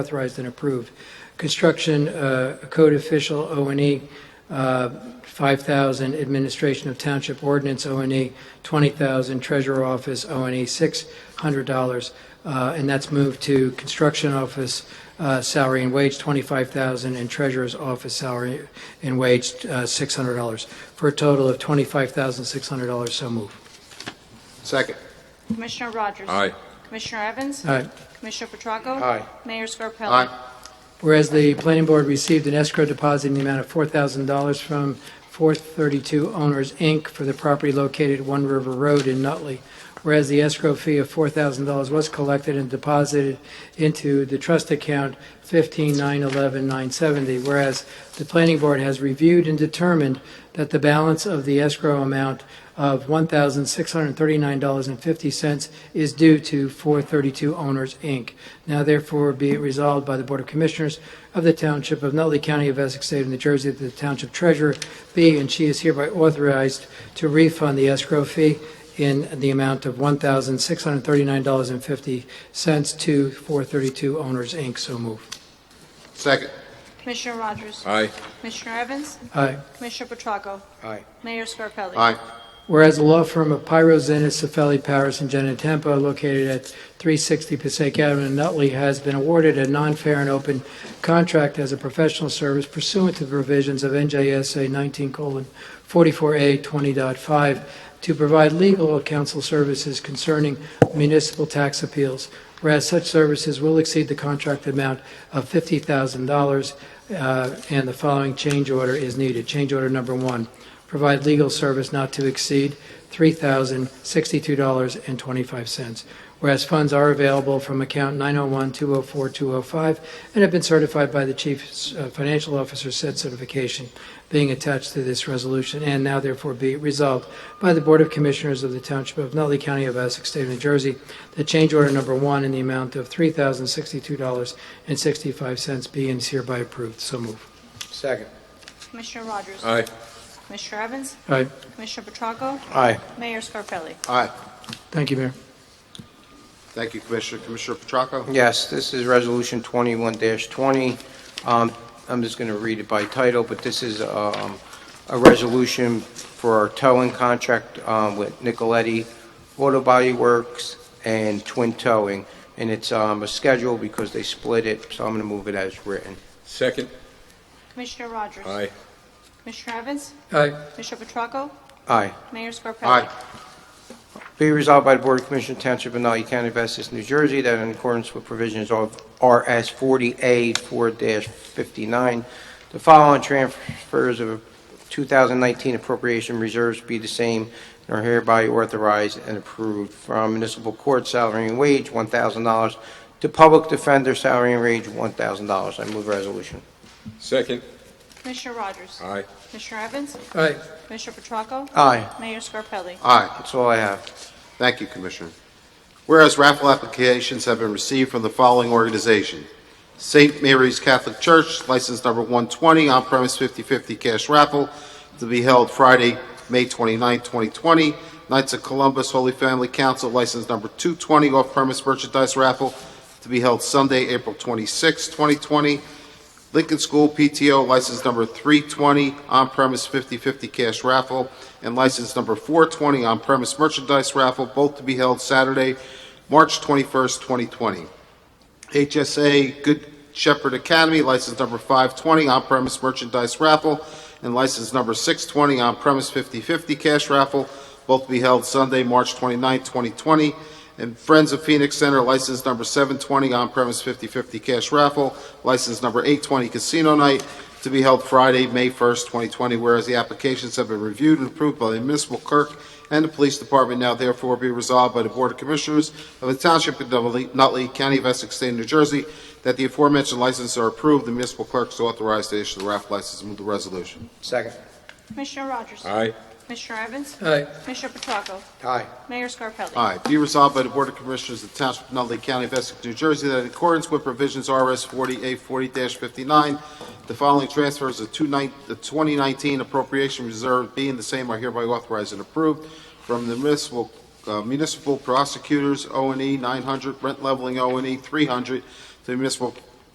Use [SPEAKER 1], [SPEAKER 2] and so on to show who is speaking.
[SPEAKER 1] authorized and approved. Construction, uh, code official, O and E, uh, 5,000, administration of township ordinance, O and E, 20,000, treasurer office, O and E, $600. uh, And that's moved to construction office uh, salary and wage, 25,000, and treasurer's office salary and wage, uh, $600, for a total of $25,600. So move.
[SPEAKER 2] Second.
[SPEAKER 3] Commissioner Rogers?
[SPEAKER 2] Aye.
[SPEAKER 3] Commissioner Evans?
[SPEAKER 1] All right.
[SPEAKER 3] Commissioner Petracco?
[SPEAKER 2] Aye.
[SPEAKER 3] Mayor Scarpelli?
[SPEAKER 2] Aye.
[SPEAKER 1] Whereas the planning board received an escrow deposit in the amount of $4,000 from 432 Owners, Inc. for the property located at One River Road in Nutley. Whereas the escrow fee of $4,000 was collected and deposited into the trust account 15911970. Whereas the planning board has reviewed and determined that the balance of the escrow amount of $1,639.50 is due to 432 Owners, Inc. Now therefore be it resolved by the Board of Commissioners of the Township of Nutley County of Essex State of New Jersey that the Township Treasurer be and she is hereby authorized to refund the escrow fee in the amount of $1,639.50 to 432 Owners, Inc. So move.
[SPEAKER 2] Second.
[SPEAKER 3] Commissioner Rogers?
[SPEAKER 2] Aye.
[SPEAKER 3] Commissioner Evans?
[SPEAKER 1] Aye.
[SPEAKER 3] Commissioner Petracco?
[SPEAKER 2] Aye.
[SPEAKER 3] Mayor Scarpelli?
[SPEAKER 2] Aye.
[SPEAKER 1] Whereas the law firm of Pyro Zenas, Cefali, Paris, and Genetempo, located at 360 Passaic Avenue in Nutley, has been awarded a non-fair and open contract as a professional service pursuant to the provisions of NJSA 19:44A 20.5 to provide legal counsel services concerning municipal tax appeals. Whereas such services will exceed the contract amount of $50,000, uh, and the following change order is needed. Change order number one, provide legal service not to exceed $3,062.25, whereas funds are available from account 901-204-205 and have been certified by the Chief uh, Financial Officer said certification being attached to this resolution, and now therefore be resolved by the Board of Commissioners of the Township of Nutley County of Essex, State of New Jersey, that change order number one in the amount of $3,062.65 be and is hereby approved. So move.
[SPEAKER 2] Second.
[SPEAKER 3] Commissioner Rogers?
[SPEAKER 2] Aye.
[SPEAKER 3] Commissioner Evans?
[SPEAKER 1] All right.
[SPEAKER 3] Commissioner Petracco?
[SPEAKER 2] Aye.
[SPEAKER 3] Mayor Scarpelli?
[SPEAKER 2] Aye.
[SPEAKER 1] Thank you, Mayor.
[SPEAKER 2] Thank you, Commissioner. Commissioner Petracco?
[SPEAKER 4] Yes, this is Resolution 21-20. Um, I'm just going to read it by title, but this is um, a resolution for our towing contract um, with Nicoletti Auto Body Works and Twin Towing, and it's um, a schedule because they split it, so I'm going to move it as written.
[SPEAKER 2] Second.
[SPEAKER 3] Commissioner Rogers?
[SPEAKER 2] Aye.
[SPEAKER 3] Commissioner Evans?
[SPEAKER 1] Aye.
[SPEAKER 3] Commissioner Petracco?
[SPEAKER 4] Aye.
[SPEAKER 3] Mayor Scarpelli?
[SPEAKER 2] Aye.
[SPEAKER 4] Be resolved by the Board of Commissioners Township of Nutley County of Essex, New Jersey, that in accordance with provisions of RS 40A 4-59, the following transfers of 2019 appropriation reserves be the same and are hereby authorized and approved from municipal court salary and wage $1,000 to public defender salary and wage $1,000. I move resolution.
[SPEAKER 2] Second.
[SPEAKER 3] Commissioner Rogers?
[SPEAKER 2] Aye.
[SPEAKER 3] Commissioner Evans?
[SPEAKER 1] All right.
[SPEAKER 3] Commissioner Petracco?
[SPEAKER 4] Aye.
[SPEAKER 3] Mayor Scarpelli?
[SPEAKER 2] Aye.
[SPEAKER 4] That's all I have.
[SPEAKER 2] Thank you, Commissioner. Whereas raffle applications have been received from the following organization: St. Mary's Catholic Church, license number 120, on-premise 50/50 cash raffle, to be held Friday, May 29, 2020. Knights of Columbus Holy Family Council, license number 220, off-premise merchandise raffle, to be held Sunday, April 26, 2020. Lincoln School PTO, license number 320, on-premise 50/50 cash raffle, and license number 420, on-premise merchandise raffle, both to be held Saturday, March 21st, 2020. HSA Good Shepherd Academy, license number 520, on-premise merchandise raffle, and license number 620, on-premise 50/50 cash raffle, both to be held Sunday, March 29th, 2020. And Friends of Phoenix Center, license number 720, on-premise 50/50 cash raffle, license number 820, casino night, to be held Friday, May 1st, 2020. Whereas the applications have been reviewed and approved by the municipal clerk and the police department, now therefore be resolved by the Board of Commissioners of the Township of Nutley- Nutley, County of Essex, State of New Jersey, that the aforementioned licenses are approved, the municipal clerk is authorized to issue the raffle license. Move the resolution.
[SPEAKER 4] Second.
[SPEAKER 3] Commissioner Rogers? Commissioner Evans?
[SPEAKER 1] Aye.
[SPEAKER 3] Commissioner Petracco?
[SPEAKER 4] Aye.
[SPEAKER 3] Mayor Scarpelli?
[SPEAKER 2] Aye. Be resolved by the Board of Commissioners of the Township of Nutley County of Essex, New Jersey, that in accordance with provisions RS 40A40-59, the following transfers of two nine- the 2019 appropriation reserve being the same are hereby authorized and approved from the municipal uh, municipal prosecutors O and E 900, rent leveling O and E 300, to the municipal